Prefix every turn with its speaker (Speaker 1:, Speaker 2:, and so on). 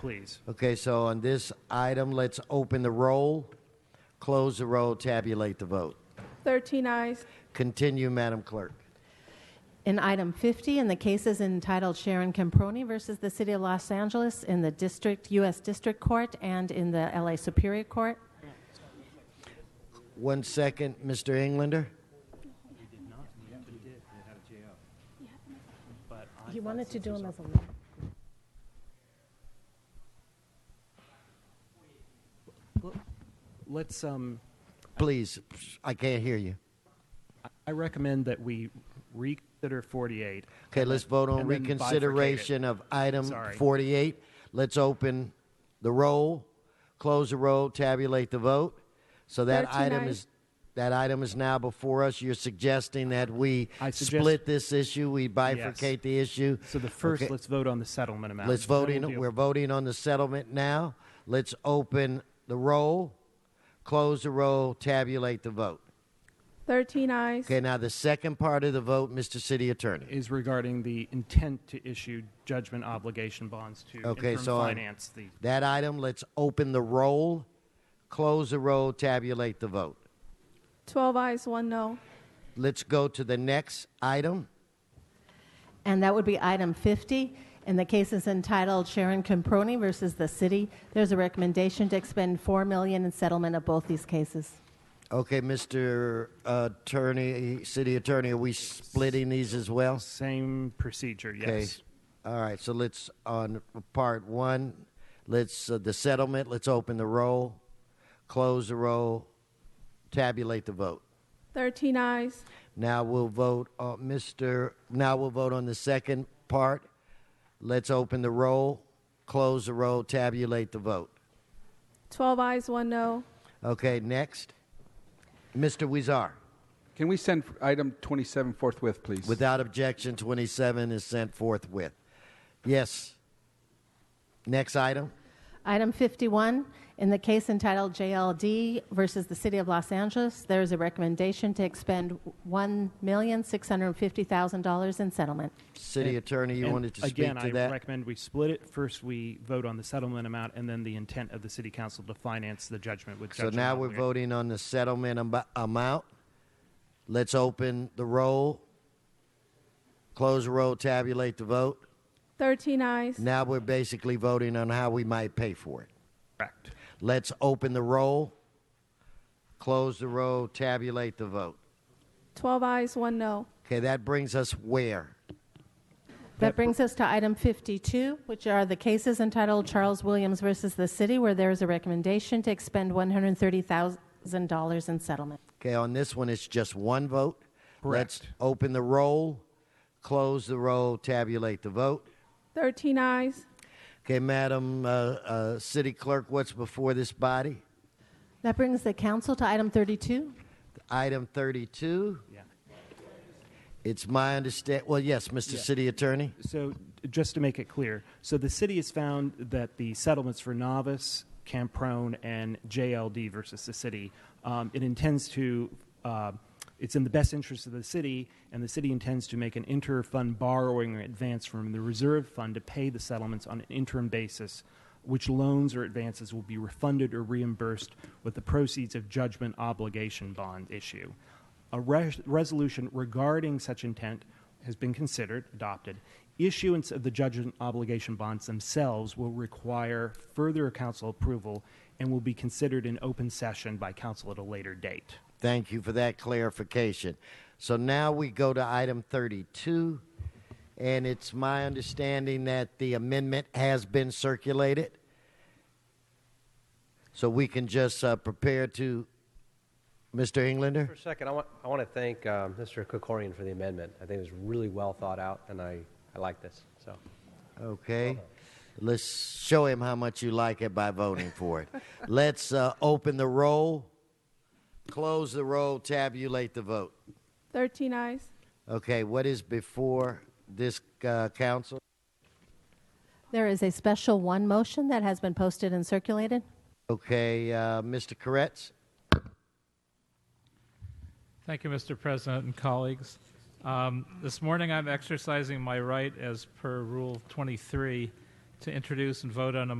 Speaker 1: please.
Speaker 2: Okay, so on this item, let's open the roll, close the roll, tabulate the vote.
Speaker 3: 13 eyes.
Speaker 2: Continue, Madam Clerk.
Speaker 4: In item 50, in the cases entitled Sharon Camproni versus the City of Los Angeles in the District, U.S. District Court and in the L.A. Superior Court,
Speaker 2: One second, Mr. Englander.
Speaker 4: You wanted to do them as a
Speaker 1: Let's, um,
Speaker 2: Please, I can't hear you.
Speaker 1: I recommend that we reconsider 48.
Speaker 2: Okay, let's vote on
Speaker 1: And then bifurcate it.
Speaker 2: reconsideration of item
Speaker 1: Sorry.
Speaker 2: 48. Let's open the roll, close the roll, tabulate the vote. So that
Speaker 3: 13
Speaker 2: item
Speaker 3: ayes.
Speaker 2: is, that item is now before us. You're suggesting that we
Speaker 1: I suggest-
Speaker 2: split this issue, we bifurcate the issue?
Speaker 1: So the first,
Speaker 2: Okay.
Speaker 1: let's vote on the settlement amount.
Speaker 2: Let's
Speaker 1: Then
Speaker 2: vote
Speaker 1: we'll
Speaker 2: in.
Speaker 1: deal-
Speaker 2: We're voting on the settlement now. Let's open the roll, close the roll, tabulate the vote.
Speaker 3: 13 eyes.
Speaker 2: Okay, now the second part of the vote, Mr. City Attorney.
Speaker 1: Is regarding the intent to issue judgment obligation bonds to
Speaker 2: Okay,
Speaker 1: interim
Speaker 2: so on
Speaker 1: finance the.
Speaker 2: that item, let's open the roll, close the roll, tabulate the vote.
Speaker 3: 12 eyes, 1 no.
Speaker 2: Let's go to the next item.
Speaker 4: And that would be item 50. In the cases entitled Sharon Camproni versus the City, there's a recommendation to expend 4 million in settlement of both these cases.
Speaker 2: Okay, Mr. Attorney, City Attorney, are we splitting these as well?
Speaker 1: Same procedure,
Speaker 2: Okay.
Speaker 1: yes.
Speaker 2: All right. So let's on part one. Let's uh, the settlement. Let's open the roll, close the roll, tabulate the vote.
Speaker 3: 13 eyes.
Speaker 2: Now we'll vote, on Mr. Now we'll vote on the second part. Let's open the roll, close the roll, tabulate the vote.
Speaker 3: 12 eyes, 1 no.
Speaker 2: Okay. Next, Mr. Wizar.
Speaker 5: Can we send item 27 forthwith, please?
Speaker 2: Without objection, twenty-seven is sent forthwith. Yes. Next item.
Speaker 4: Item 51, in the case entitled JLD versus the City of Los Angeles, there is a recommendation to expend $1,650,000 in settlement.
Speaker 2: City Attorney, you
Speaker 1: And
Speaker 2: wanted to speak
Speaker 1: again,
Speaker 2: to
Speaker 1: I
Speaker 2: that.
Speaker 1: recommend we split it. First, we vote on the settlement amount, and then the intent of the city council to finance the judgment with.
Speaker 2: So
Speaker 1: judgment
Speaker 2: now we're
Speaker 1: obliga-
Speaker 2: voting on the settlement am- amount. Let's open the roll, close the roll, tabulate the vote.
Speaker 3: 13 eyes.
Speaker 2: Now we're basically voting on how we might pay for it.
Speaker 1: Correct.
Speaker 2: Let's open the roll, close the roll, tabulate the vote.
Speaker 3: 12 eyes, 1 no.
Speaker 2: Okay, that brings us where?
Speaker 4: That brings us to item 52, which are the cases entitled Charles Williams versus the City, where there is a recommendation to expend $130,000 in settlement.
Speaker 2: Okay, on this one, it's just one vote. Let's
Speaker 1: Correct.
Speaker 2: open the roll, close the roll, tabulate the vote.
Speaker 3: 13 eyes.
Speaker 2: Okay, Madam uh, uh, City Clerk, what's before this body?
Speaker 4: That brings the council to item 32.
Speaker 2: Item 32.
Speaker 1: Yeah.
Speaker 2: It's my understand. Well, yes, Mr. City Attorney.
Speaker 1: So, just to make it clear, so the city has found that the settlements for Novice, Camprone, and JLD versus the city, um, it intends to, uh, it's in the best interest of the city, and the city intends to make an inter-fund borrowing or advance from the reserve fund to pay the settlements on an interim basis, which loans or advances will be refunded or reimbursed with the proceeds of judgment obligation bond issue. A res- resolution regarding such intent has been considered, adopted. Issuance of the judgment obligation bonds themselves will require further council approval and will be considered in open session by council at a later date.
Speaker 2: Thank you for that clarification. So now we go to item 32, and it's my understanding that the amendment has been circulated. So we can just uh, prepare to, Mr. Englander.
Speaker 6: For a second, I want, I want to thank um, Mr. Kokorian for the amendment. I think it was really well thought out, and I, I like this. So,
Speaker 2: Okay. Let's show him how much you like it by voting for it. Let's uh, open the roll, close the roll, tabulate the vote.
Speaker 3: 13 eyes.
Speaker 2: Okay, what is before this uh, council?
Speaker 4: There is a special one motion that has been posted and circulated.
Speaker 2: Okay, uh, Mr. Koretz.
Speaker 7: Thank you, Mr. President and colleagues. Um, this morning, I'm exercising my right as per Rule 23 to introduce and vote on a